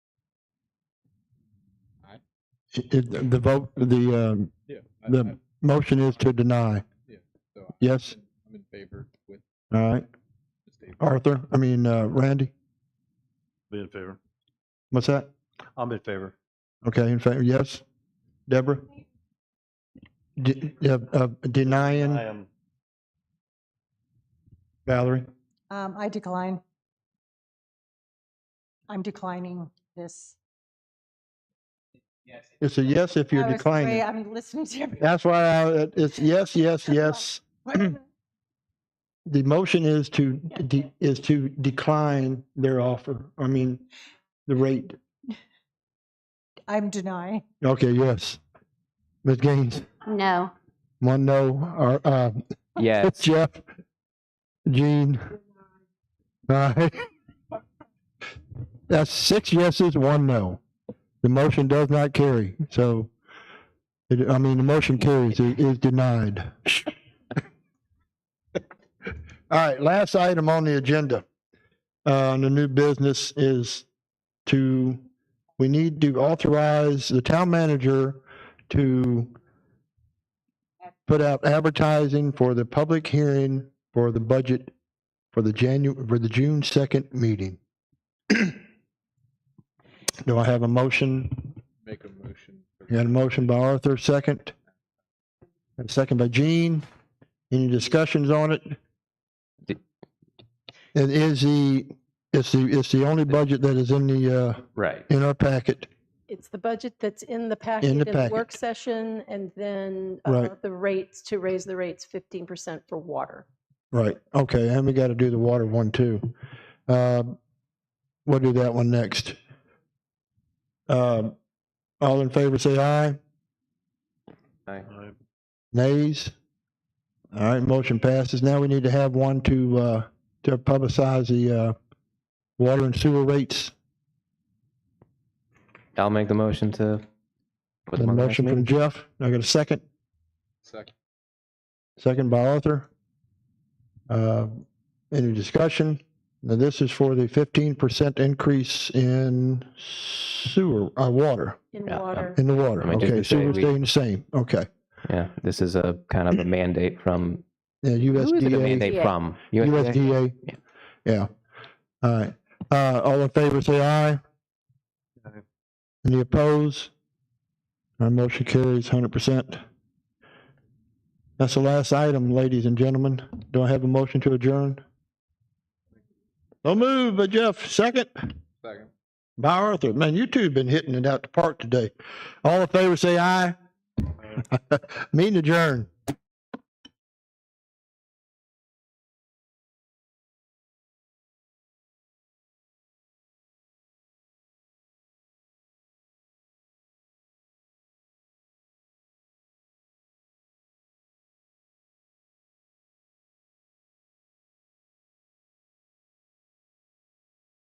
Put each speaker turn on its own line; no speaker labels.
It- it- The vote, the um,
Yeah. I-
The-
I'm-
motion is to deny.
so I'm
Yes.
in- I'm in favor with
All right.
the statement.
Arthur, I mean, uh, Randy,
Be in favor.
what's that?
I'm in favor.
Okay, in favor, yes. Deborah? De- uh, uh,
I
Denying,
am,
Valerie?
Um, I decline. I'm declining this.
It's a yes if you're
I was afraid-
declining.
I'm listening to everyone.
That's why I, it's yes, yes, yes. The motion is to, de- is to decline their offer, I mean, the rate.
I'm denying.
Okay, yes. Ms. Gaines,
No.
one no, or, uh,
Yes.
Jeff, Gene. All right. That's six yeses, one no. The motion does not carry, so, it- I mean, the motion carries, it is denied. All right, last item on the agenda, uh, on the new business is to, we need to authorize the town manager to put out advertising for the public hearing for the budget for the Janu, for the June second meeting. Do I have a motion?
Make a motion. for
Got a motion by Arthur, second. And second by Gene. Any discussions on it?
Di-
It is the, it's the, it's the only budget that is in the, uh,
Right.
in our packet.
It's the budget that's in the packet in the work session and then uh,
Right.
the rates, to raise the rates 15% for water.
Right, okay, and we got to do the water one too. Uh, We'll do that one next. Um, All in favor, say aye.
I-
Nays? All right, motion passes. Now we need to have one to, uh, to publicize the uh, water and sewer rates.
I'll make the motion to. put
The
them on the next
motion from
meeting.
Jeff. I got a second.
Second.
Second by Arthur. Uh, Any discussion? Now, this is for the fifteen percent increase in sewer, uh, water,
In
Yeah, um,
water,
in the water.
I mean, did
Okay,
you say
sewer
we-
staying the same. Okay.
Yeah, this is a kind of a mandate from,
Yeah,
who is it a
USDA,
mandate from? USDA?
USDA.
Yeah.
Yeah. All right. Uh, all in favor, say aye.
Aye.
Any opposed? Our motion carries hundred percent. That's the last item, ladies and gentlemen. Do I have a motion to adjourn? So move, by Jeff, second.
Second.
By Arthur, man, you two have been hitting it out the park today. All in favor, say aye. Meeting adjourned.